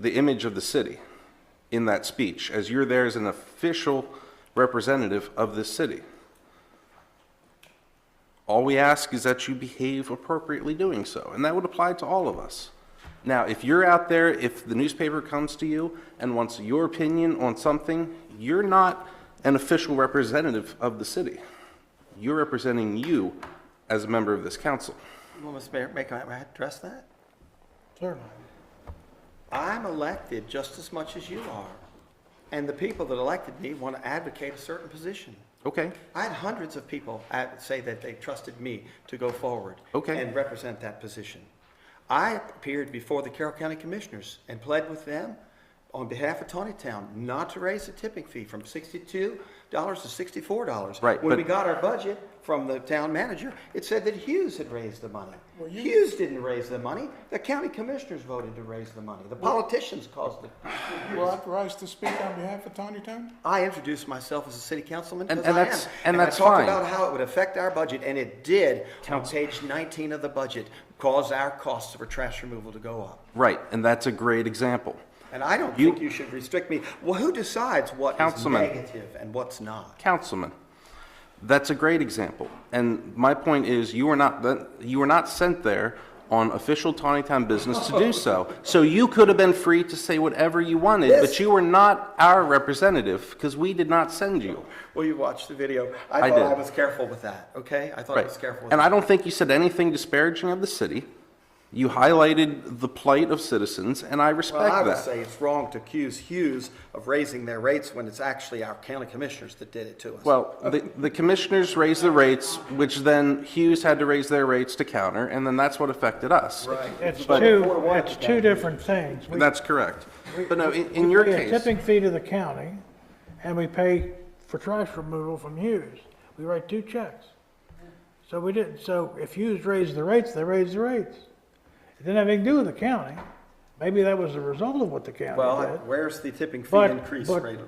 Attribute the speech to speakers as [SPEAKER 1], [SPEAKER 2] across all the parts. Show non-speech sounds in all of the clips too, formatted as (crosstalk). [SPEAKER 1] the image of the city in that speech, as you're there as an official representative of this city. All we ask is that you behave appropriately doing so, and that would apply to all of us. Now, if you're out there, if the newspaper comes to you and wants your opinion on something, you're not an official representative of the city. You're representing you as a member of this council.
[SPEAKER 2] Well, Mr. Mayor, may I may I address that?
[SPEAKER 3] Certainly.
[SPEAKER 2] I'm elected just as much as you are, and the people that elected me want to advocate a certain position.
[SPEAKER 1] Okay,
[SPEAKER 2] I had hundreds of people at- say that they trusted me to go forward.
[SPEAKER 1] Okay.
[SPEAKER 2] And represent that position. I appeared before the Carroll County Commissioners and pled with them on behalf of Tawny Town not to raise the tipping fee from sixty-two dollars to sixty-four dollars.
[SPEAKER 1] Right,
[SPEAKER 2] When
[SPEAKER 1] but-
[SPEAKER 2] we got our budget from the town manager, it said that Hughes had raised the money. Hughes didn't raise the money. The county commissioners voted to raise the money. The politicians caused it.
[SPEAKER 3] You were authorized to speak on behalf of Tawny Town?
[SPEAKER 2] I introduced myself as a city councilman
[SPEAKER 1] And-
[SPEAKER 2] because
[SPEAKER 1] and
[SPEAKER 2] I
[SPEAKER 1] that's-
[SPEAKER 2] am.
[SPEAKER 1] and that's fine.
[SPEAKER 2] I talked about how it would affect our budget, and it did on page 19 of the budget, cause our costs for trash removal to go up.
[SPEAKER 1] right, and that's a great example.
[SPEAKER 2] And I don't
[SPEAKER 1] You-
[SPEAKER 2] think you should restrict me. Well, who decides what is
[SPEAKER 1] Councilman.
[SPEAKER 2] negative and what's not?
[SPEAKER 1] Councilman, that's a great example. And my point is, you were not, that- you were not sent there on official Tawny Town business to do so. So you could have been free to say whatever you wanted, but
[SPEAKER 2] Yes.
[SPEAKER 1] you were not our representative, because we did not send you.
[SPEAKER 2] Well, you watched the video.
[SPEAKER 1] I
[SPEAKER 2] I thought I
[SPEAKER 1] did.
[SPEAKER 2] was careful with that, okay? I thought I
[SPEAKER 1] Right.
[SPEAKER 2] was careful with
[SPEAKER 1] And
[SPEAKER 2] that.
[SPEAKER 1] I don't think you said anything disparaging of the city. You highlighted the plight of citizens, and I respect
[SPEAKER 2] Well, I
[SPEAKER 1] that.
[SPEAKER 2] would say it's wrong to accuse Hughes of raising their rates when it's actually our county commissioners that did it to us.
[SPEAKER 1] Well, the, the commissioners raised the rates, which then Hughes had to raise their rates to counter, and then that's what affected us. Right.
[SPEAKER 4] It's
[SPEAKER 1] But-
[SPEAKER 4] two, it's two different things. We
[SPEAKER 1] That's correct. But no, in, in your
[SPEAKER 4] pay a
[SPEAKER 1] case,
[SPEAKER 4] tipping fee to the county, and we pay for trash removal from Hughes. We write two checks. So we didn't, so if Hughes raised the rates, they raised the rates. It didn't have anything to do with the county. Maybe that was the result of what the county
[SPEAKER 2] Well,
[SPEAKER 4] did.
[SPEAKER 2] where's the tipping fee
[SPEAKER 4] But-
[SPEAKER 2] increase
[SPEAKER 4] but-
[SPEAKER 2] rate?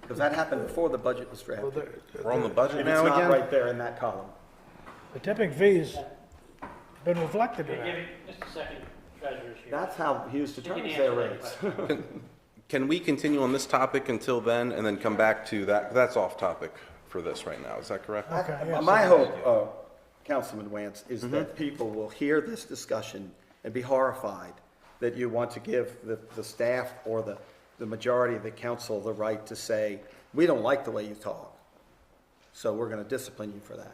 [SPEAKER 2] Because that happened before the budget was drafted.
[SPEAKER 1] we're on the budget
[SPEAKER 2] And it's
[SPEAKER 1] now
[SPEAKER 2] not
[SPEAKER 1] again.
[SPEAKER 2] right there in that column.
[SPEAKER 4] The tipping fee's been reflected in
[SPEAKER 5] Give
[SPEAKER 4] that.
[SPEAKER 5] me just a second, treasurer's here.
[SPEAKER 2] That's how Hughes
[SPEAKER 5] can
[SPEAKER 2] determines
[SPEAKER 5] answer
[SPEAKER 2] their
[SPEAKER 5] that
[SPEAKER 2] rates.
[SPEAKER 5] question.
[SPEAKER 1] Can we continue on this topic until then and then come back to that? That's off topic for this right now, is that correct?
[SPEAKER 4] Okay, yeah,
[SPEAKER 2] (laughs)
[SPEAKER 4] Mm-hmm.
[SPEAKER 2] My hope, uh, Councilman Wance, is that people will hear this discussion and be horrified that you want to give the, the staff or the, the majority of the council the right to say, we don't like the way you talk, so we're going to discipline you for that.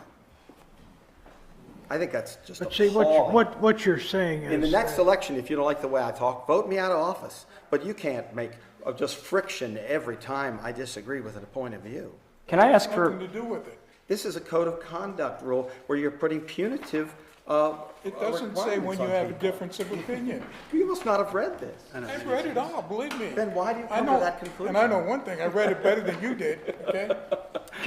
[SPEAKER 2] I think that's just
[SPEAKER 4] But see, what,
[SPEAKER 2] appalling.
[SPEAKER 4] what, what you're saying
[SPEAKER 2] In the
[SPEAKER 4] is,
[SPEAKER 2] next election, if you don't like the way I talk, vote me out of office. But you can't make uh, just friction every time I disagree with a point of view.
[SPEAKER 6] Can I ask for,
[SPEAKER 3] Nothing to do with it.
[SPEAKER 2] This is a code of conduct rule where you're putting punitive uh,
[SPEAKER 3] It doesn't say when
[SPEAKER 2] requirements
[SPEAKER 3] you
[SPEAKER 2] on
[SPEAKER 3] have a
[SPEAKER 2] people.
[SPEAKER 3] difference
[SPEAKER 2] (laughs)
[SPEAKER 3] of opinion.
[SPEAKER 2] You must not have read this.
[SPEAKER 3] I've read it all, believe me.
[SPEAKER 2] Then why do you
[SPEAKER 3] I
[SPEAKER 2] come to
[SPEAKER 3] know-
[SPEAKER 2] that conclusion?
[SPEAKER 3] And I know one thing, I read it better than you did, okay?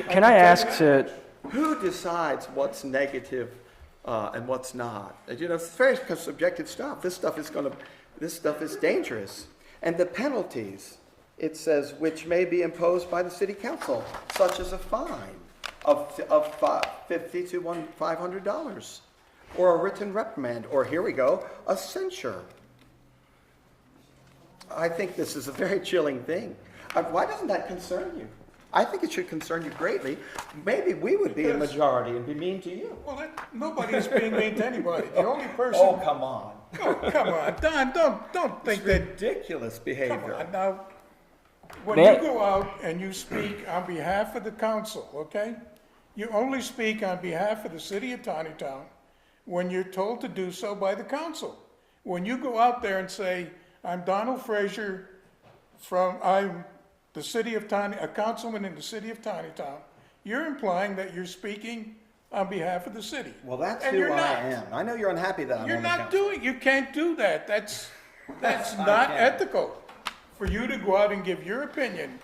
[SPEAKER 6] can I ask to,
[SPEAKER 2] Who decides what's negative uh, and what's not? And, You know, it's very subjective stuff. This stuff is going to, this stuff is dangerous. And the penalties, it says, which may be imposed by the city council, such as a fine of, of fi- 50 to one- $500, or a written reprimand, or here we go, a censure. I think this is a very chilling thing. Uh, Why doesn't that concern you? I think it should concern you greatly. Maybe we would be a majority and be mean to you.
[SPEAKER 3] Well, that- nobody is being mean to anybody. The only
[SPEAKER 2] Oh,
[SPEAKER 3] person,
[SPEAKER 2] come on.
[SPEAKER 3] oh, come on, Don, don't, don't think that,
[SPEAKER 2] Ridiculous
[SPEAKER 3] come
[SPEAKER 2] behavior.
[SPEAKER 3] on, now. When
[SPEAKER 6] May I-
[SPEAKER 3] you go out and you speak on behalf of the council, okay? You only speak on behalf of the city of Tawny Town when you're told to do so by the council. When you go out there and say, I'm Donald Frazier, from, I'm the city of Tiny, a councilman in the city of Tiny Town, you're implying that you're speaking on behalf of the city.
[SPEAKER 2] Well, that's
[SPEAKER 3] And
[SPEAKER 2] who
[SPEAKER 3] you're
[SPEAKER 2] I
[SPEAKER 3] not.
[SPEAKER 2] am. I know you're unhappy that I'm on
[SPEAKER 3] You're
[SPEAKER 2] the
[SPEAKER 3] not
[SPEAKER 2] council.
[SPEAKER 3] doing, you can't do that. That's,
[SPEAKER 2] (laughs)
[SPEAKER 3] that's not ethical. For you to go out and give your opinion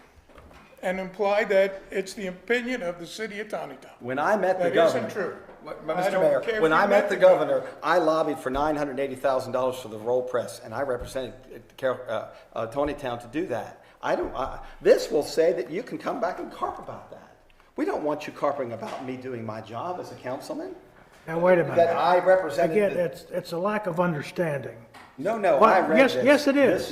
[SPEAKER 3] and imply that it's the opinion of the city of Tawny Town.
[SPEAKER 2] When I met the
[SPEAKER 3] That isn't
[SPEAKER 2] governor.
[SPEAKER 3] true.
[SPEAKER 2] Wh-
[SPEAKER 3] I
[SPEAKER 2] Mr.
[SPEAKER 3] don't care
[SPEAKER 2] Mayor,
[SPEAKER 3] if
[SPEAKER 2] when
[SPEAKER 3] you
[SPEAKER 2] I
[SPEAKER 3] met
[SPEAKER 2] met the
[SPEAKER 3] the
[SPEAKER 2] governor, I lobbied for nine hundred eighty thousand dollars for the roll press, and I represented uh, Car- uh, uh, Tony Town to do that. I don't, uh, this will say that you can come back and carp about that. We don't want you carping about me doing my job as a councilman,
[SPEAKER 4] now wait a
[SPEAKER 2] that
[SPEAKER 4] minute.
[SPEAKER 2] I represented.
[SPEAKER 4] Again,
[SPEAKER 2] the-
[SPEAKER 4] it's, it's a lack of understanding.
[SPEAKER 2] No, no,
[SPEAKER 4] Well,
[SPEAKER 2] I read
[SPEAKER 4] yes-
[SPEAKER 2] this.
[SPEAKER 4] yes, it
[SPEAKER 2] This
[SPEAKER 4] is.